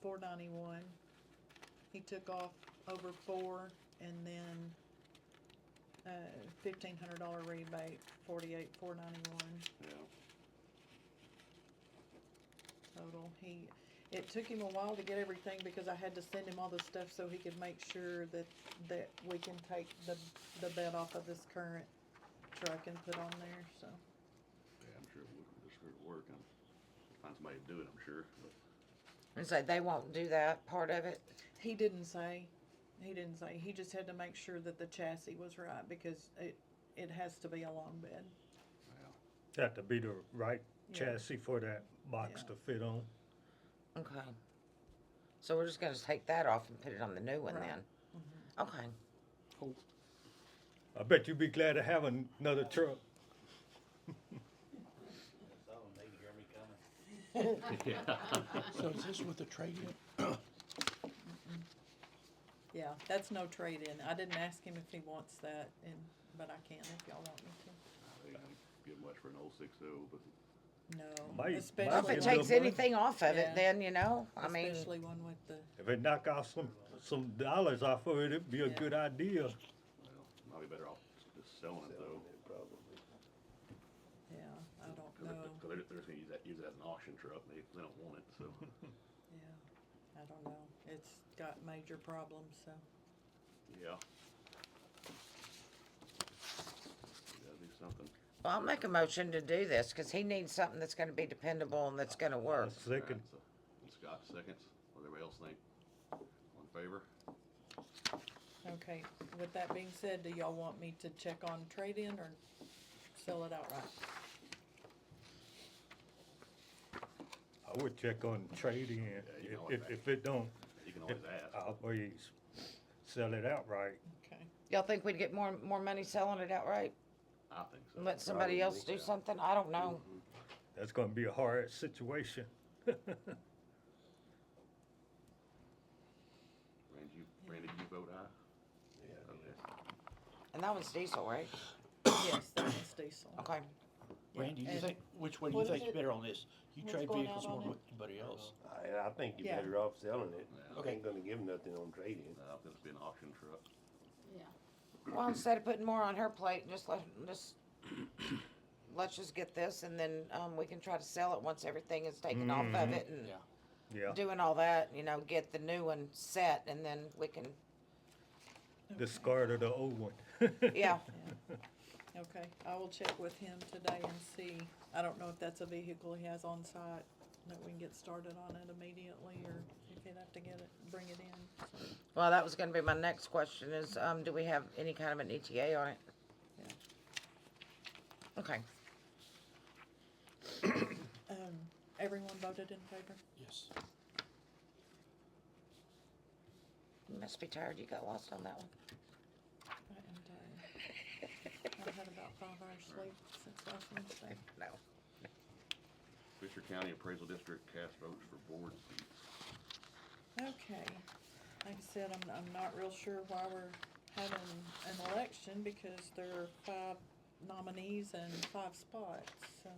four ninety-one. He took off over four and then, uh, fifteen hundred dollar rebate, forty-eight, four ninety-one yeah. total. He, it took him a while to get everything because I had to send him all the stuff so he could make sure that, that we can take the, the bed off of this current truck and put on there, so. Yeah, I'm sure it would, just for working. Find somebody to do it, I'm sure, but And so they won't do that part of it? He didn't say, he didn't say, he just had to make sure that the chassis was right because it, it has to be a long bed. yeah. Got to be the right Yeah. chassis for that box Yeah. to fit on. Okay. So we're just gonna take that off and put it on the new one Right. then? Okay. I bet you'd be glad to have another truck. So they can hear me coming. So is this with the trade-in? Yeah, that's no trade-in. I didn't ask him if he wants that and, but I can if y'all want me I think I'd Give much for an old six oh, but to. No, Might- Well, if especially, Give it it a takes little money. anything off of Yeah. it, then, you know, I mean, especially one with the, If it knock off some, some dollars off of it, it'd be a Yeah. good idea. well, might be better off just selling it though. Probably. yeah, I don't Cause they're, know, 'cause they're- they're just gonna use that, use it as an auction truck, and they, they don't want it, so. yeah, I don't know. It's got major problems, so, Yeah. We Gotta do something. well, I'll make a motion to do this, cause he needs something that's gonna be dependable and that's gonna work. Second, Alright, so, Scott seconds, what everybody else think? All in favor? okay. With that being said, do y'all want me to check on trade-in or sell it outright? I would check on trade-in. Yeah, you know If, what, if- if it don't, You can always ask. I'll always sell it outright. Okay, Y'all think we'd get more, more money selling it outright? I think so. And let somebody else do something? I don't know. That's gonna be a hard situation. Randy, you, Randy, you vote aye? Yeah. Okay. And that one's diesel, right? yes, that was diesel. Okay. Randy, you And- think, which way do What you is think it? is better on this? You What's trade going vehicles out more on than it? what- anybody else. I, I think you're Yeah. better off selling it. Yeah. I Ain't gonna give nothing on trade-in. Uh, it's been auction truck. Yeah. Well, instead of putting more on her plate, just let, just, let's just get this and then, um, we can try to sell it once everything is taken off of it and Yeah. Yeah, doing all that, you know, get the new one set and then we can, discard of the old one. yeah. Okay, I will check with him today and see. I don't know if that's a vehicle he has on site, that we can get started on it immediately, or if he'd have to get it, bring it in. Well, that was gonna be my next question is, um, do we have any kind of an ETA on it? Yeah. Okay. Um, everyone voted in favor? Yes. You must be tired. You got lost on that one. I am tired. I've had about five hours sleep since last Wednesday. No. Fisher County Appraisal District cast votes for board seats. Okay, like I said, I'm, I'm not real sure why we're having an election, because there are five nominees and five spots, so.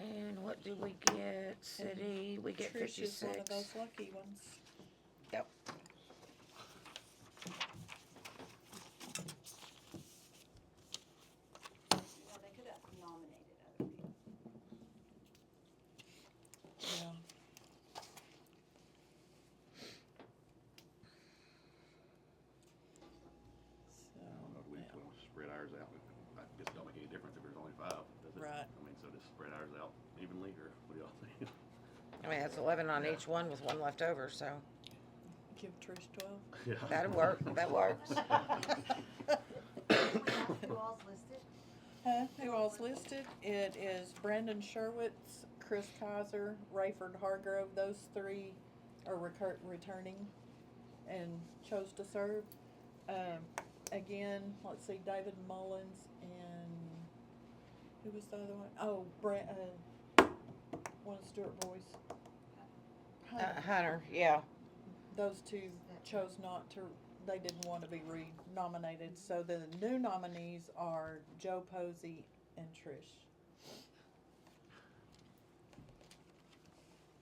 And what do we get? City, we get Trish is one of those fifty-six. lucky ones. Yep. Well, they could have nominated other people. Yeah. So, I don't know if we, yeah. we don't spread ours out. It just don't make any difference if there's only five, does it? Right. I mean, so just spread ours out evenly, or what do y'all think? I mean, that's eleven on each one with one left over, so give Trish twelve. Yeah. that'll work. That works. Who all's listed? Huh? Who all's listed? It is Brandon Sherwitz, Chris Kaiser, Rayford Hargrove. Those three are recur- returning and chose to serve. Um, again, let's see, David Mullins and who was the other one? Oh, Brent, uh, one of Stuart Boys. Uh, Hunter, yeah. Those two chose not to, they didn't want to be re-nominated, so the new nominees are Joe Posey and Trish.